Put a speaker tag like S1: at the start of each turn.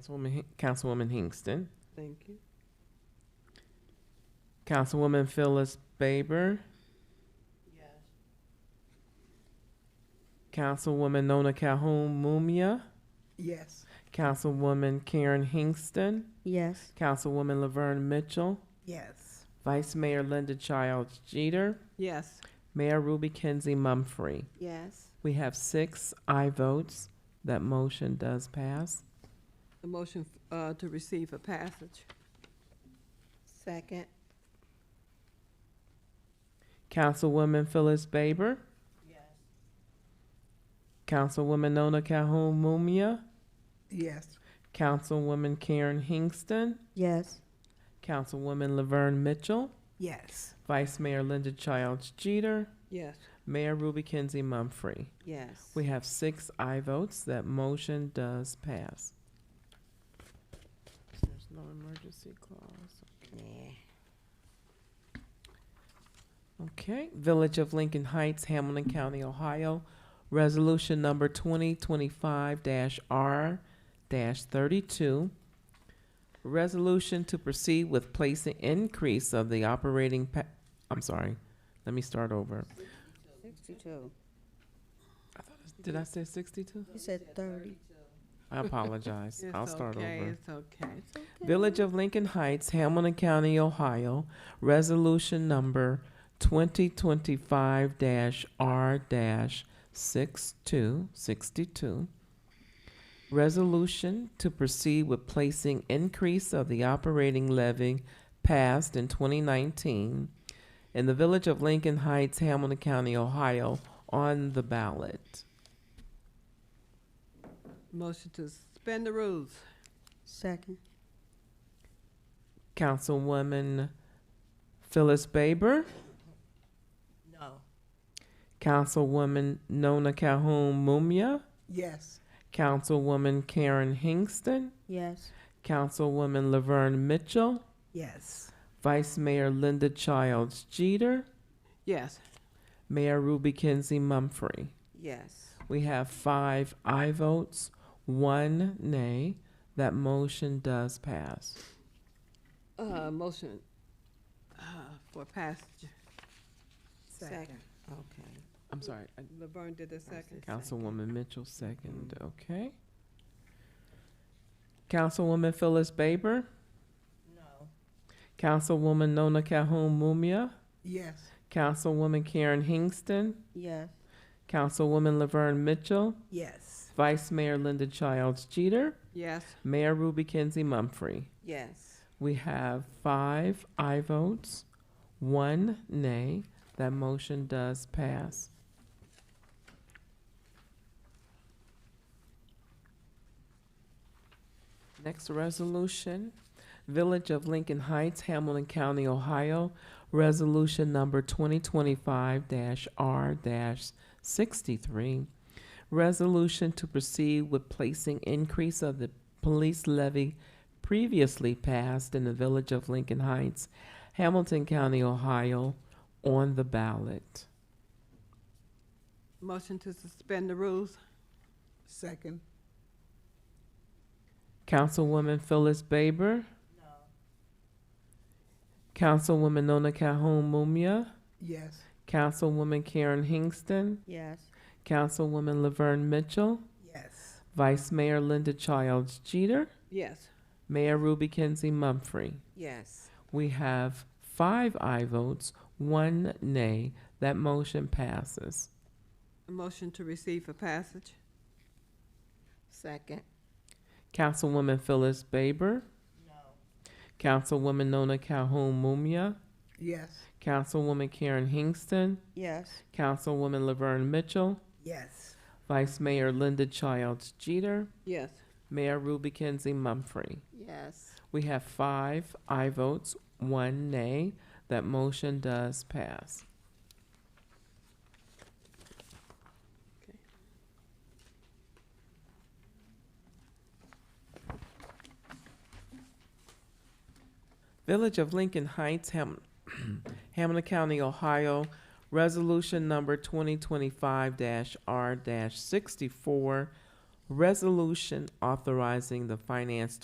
S1: Councilwoman, Hin- Councilwoman Hingston.
S2: Thank you.
S1: Councilwoman Phyllis Baber. Councilwoman Nona Calhoun Mumia.
S2: Yes.
S1: Councilwoman Karen Hingston.
S3: Yes.
S1: Councilwoman Laverne Mitchell.
S2: Yes.
S1: Vice Mayor Linda Childs Jeter.
S2: Yes.
S1: Mayor Ruby Kenzie Mumfree.
S3: Yes.
S1: We have six aye votes. That motion does pass.
S2: The motion uh, to receive a passage.
S3: Second.
S1: Councilwoman Phyllis Baber. Councilwoman Nona Calhoun Mumia.
S2: Yes.
S1: Councilwoman Karen Hingston.
S3: Yes.
S1: Councilwoman Laverne Mitchell.
S2: Yes.
S1: Vice Mayor Linda Childs Jeter.
S2: Yes.
S1: Mayor Ruby Kenzie Mumfree.
S3: Yes.
S1: We have six aye votes. That motion does pass. There's no emergency clause.
S3: Nah.
S1: Okay, Village of Lincoln Heights, Hamilton County, Ohio. Resolution number twenty twenty-five R thirty-two. Resolution to proceed with placing increase of the operating pa- I'm sorry, let me start over.
S3: Sixty-two.
S1: Did I say sixty-two?
S3: You said thirty.
S1: I apologize. I'll start over.
S2: It's okay, it's okay.
S1: Village of Lincoln Heights, Hamilton County, Ohio, resolution number twenty twenty-five R dash six-two, sixty-two. Resolution to proceed with placing increase of the operating levy passed in twenty nineteen in the Village of Lincoln Heights, Hamilton County, Ohio, on the ballot.
S2: Motion to suspend the rules.
S3: Second.
S1: Councilwoman Phyllis Baber.
S2: No.
S1: Councilwoman Nona Calhoun Mumia,
S2: Yes.
S1: Councilwoman Karen Hingston,
S3: Yes.
S1: Councilwoman Laverne Mitchell,
S2: Yes.
S1: Vice Mayor Linda Childs Jeter,
S2: Yes.
S1: Mayor Ruby Kenzie Mumfree.
S3: Yes.
S1: We have five aye votes, one nay. That motion does pass.
S2: Uh, motion uh, for passage.
S3: Second.
S2: Okay.
S1: I'm sorry, I-
S2: Laverne did the second.
S1: Councilwoman Mitchell second, okay. Councilwoman Phyllis Baber.
S2: No.
S1: Councilwoman Nona Calhoun Mumia.
S2: Yes.
S1: Councilwoman Karen Hingston,
S3: Yes.
S1: Councilwoman Laverne Mitchell,
S2: Yes.
S1: Vice Mayor Linda Childs Jeter,
S2: Yes.
S1: Mayor Ruby Kenzie Mumfree.
S3: Yes.
S1: We have five aye votes, one nay. That motion does pass. Next resolution, Village of Lincoln Heights, Hamilton County, Ohio. Resolution number twenty twenty-five R sixty-three. Resolution to proceed with placing increase of the police levy previously passed in the Village of Lincoln Heights, Hamilton County, Ohio, on the ballot.
S2: Motion to suspend the rules. Second.
S1: Councilwoman Phyllis Baber. Councilwoman Nona Calhoun Mumia.
S2: Yes.
S1: Councilwoman Karen Hingston.
S3: Yes.
S1: Councilwoman Laverne Mitchell.
S2: Yes.
S1: Vice Mayor Linda Childs Jeter.
S2: Yes.
S1: Mayor Ruby Kenzie Mumfree.
S3: Yes.
S1: We have five aye votes, one nay. That motion passes.
S2: A motion to receive for passage.
S3: Second.
S1: Councilwoman Phyllis Baber. Councilwoman Nona Calhoun Mumia.
S2: Yes.
S1: Councilwoman Karen Hingston.
S3: Yes.
S1: Councilwoman Laverne Mitchell.
S2: Yes.
S1: Vice Mayor Linda Childs Jeter.
S2: Yes.
S1: Mayor Ruby Kenzie Mumfree.
S3: Yes.
S1: We have five aye votes, one nay. That motion does pass. Village of Lincoln Heights, Ham- Hamilton County, Ohio. Resolution number twenty twenty-five R sixty-four. resolution authorizing the finance